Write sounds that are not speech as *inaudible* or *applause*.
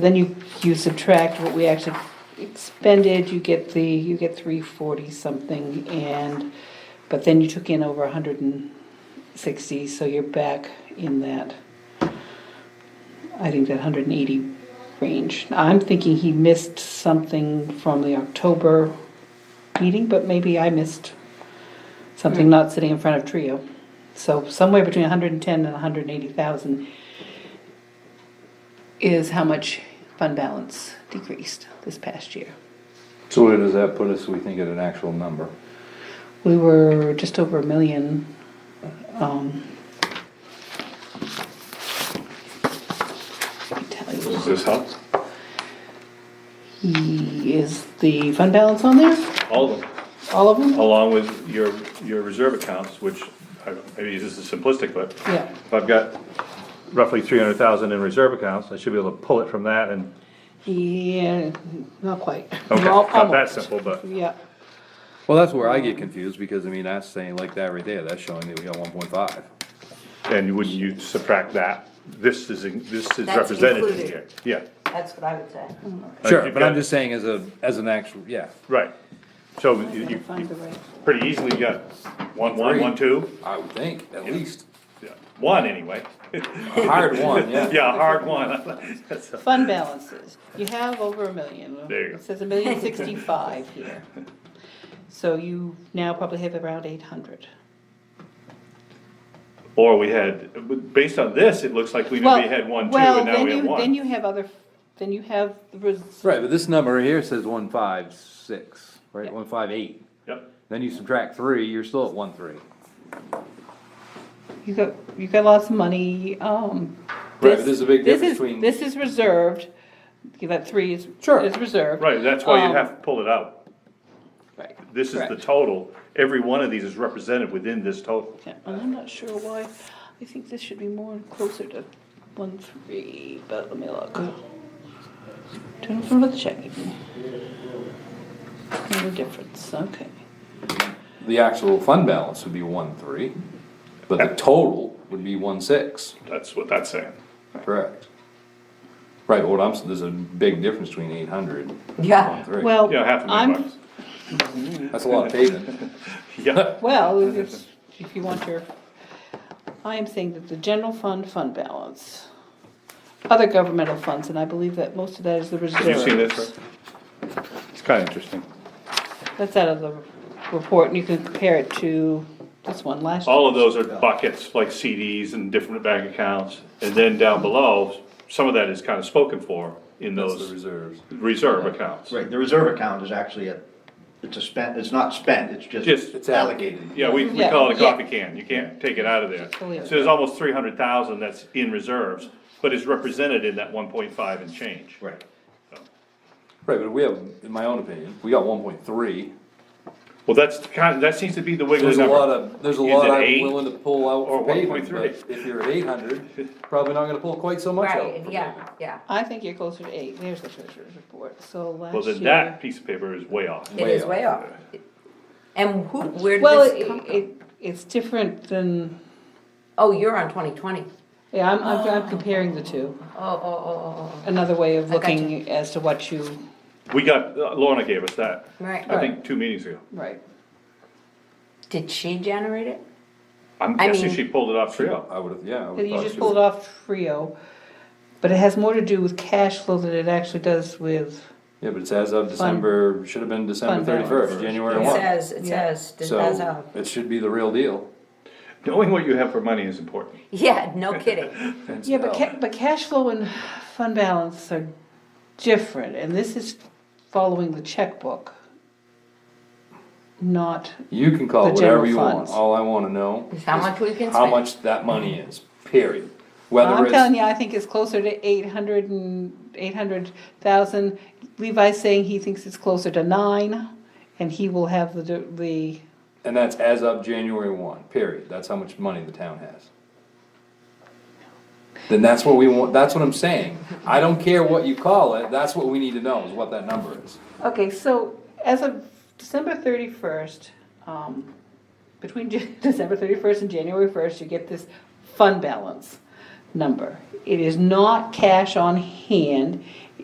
Then you, you subtract what we actually expended, you get the, you get three forty something and, but then you took in over hundred and sixty, so you're back in that. I think that hundred and eighty range. I'm thinking he missed something from the October meeting, but maybe I missed something not sitting in front of Trio. So somewhere between hundred and ten and hundred and eighty thousand is how much fund balance decreased this past year. So where does that put us, we think, at an actual number? We were just over a million. um, I can tell you. Does this help? He- Is the fund balance on there? All of them, All of them? along with your, your reserve accounts, which, I don't- maybe this is simplistic, but Yeah. if I've got roughly three hundred thousand in reserve accounts, I should be able to pull it from that and, Yeah, uh, not quite. okay, Al- not that almost. simple, but, Yeah, Well, that's where I get confused, because I mean, that's saying like that right there, that's showing that we got one point five. and wouldn't you subtract that? This is, in- this is That's represented in included. here, yeah, That's what I would say. Like, Sure, you've but I'm got- just saying as a, as an actual, yeah, right. So you, gotta you find the right. pretty easily got one, one, one, two, I would think, at least, Yeah, one anyway. a hard one, *laughs* yeah. *laughs* Yeah, a hard one. That's a- Fund balances, you have over a million. There you go. It says a million sixty-five *laughs* here. So you now probably have around eight hundred. Or we had, based on this, it looks like we Well, maybe had one, two, well, and now then we have you- Then one. you have other, then you have the res- Right, but this number here says one five six, right, Yeah. one five eight, Yep, then you subtract three, you're still at one three. you got, you got lots of money, um. Right, but this- there's a big this difference is- between- This is reserved, Okay, that three is, Sure. is reserved. right, that's why you Um, have to pull it out. Right. This is the correct. total. Every one of these is represented within this total. Yeah, and I'm not sure why, I think this should be more closer to one, three, but let me look. Turn it over to the check. No difference, okay. The actual fund balance would be one three, but the total would be one six. That's what that's saying. Correct. Right, well, I'm, s- there's a big difference between eight hundred Yeah. Well, You know, half a million I'm, bucks. That's a lot of paving. *laughs* Yeah, well, if, if you want your, I am saying that the general fund, fund balance, other governmental funds, and I believe that most of that is the reserves. have you seen this? Rick? It's kinda interesting. That's out of the report, and you can compare it to this one last year. All of those are buckets, like CDs and different bank accounts. And then down below, some of that is kinda spoken for in those reserves. reserve accounts. Right, the reserve account is actually a, it's a spent, it's not spent, it's Just- just. It's allocated. Yeah, we, we Yeah, call it a yeah. coffee can, you can't take it out of there. Totally. So there's almost three hundred thousand that's in reserves, but is represented in that one point five and change. Right. Right, but we have, in my own opinion, we got one point three. Well, that's the kind, that seems to be the wiggly There's a lot number. of, there's a Is lot it I'm eight willing to pull out or for paving, 1.3? but if you're at eight hundred, probably not gonna pull quite so much out. Right, for yeah, paving. yeah. I think you're closer to eight, there's the treasurer's report, so last year. Well, then that piece of paper is way off. It is way off. And who, where did Well, this come it, from? it, it's different than, Oh, you're on twenty twenty. yeah, I'm, I'm, I'm comparing the two, Oh, oh, oh, oh, another way of I got looking as to what you, We got, uh, Lorna gave us that, oh. Right. I think two meetings ago. right. Did she generate it? I'm I guessing mean- she pulled it off Trio. I would've, yeah. I would've You thought just so. pulled off Trio, but it has more to do with cash flow than it actually does with, Yeah, but it's as of December, should have been December Fund balance. thirty-first, January It one. says, it Yeah. says, uh, it does So, have. it should be the real deal. Knowing what you have for money is important. Yeah, no kidding. And yeah, but so- ca- but cash flow and fund balance are different, and this is following the checkbook. Not, You can call the it general whatever you want, funds. all I wanna know It's how much we can how spend. much that money is, period. Whether I'm telling it's, you, I think it's closer to eight hundred and, eight hundred thousand. Levi's saying he thinks it's closer to nine, and he will have the, the, and that's as of January one, period, that's how much money the town has. Then that's what we want, that's what I'm saying, I don't care what you call it, that's what we need to know, is what that number is. Okay, so as of December thirty-first, um, between *laughs* Jan- December thirty-first and January first, you get this fund balance number. It is not cash on hand,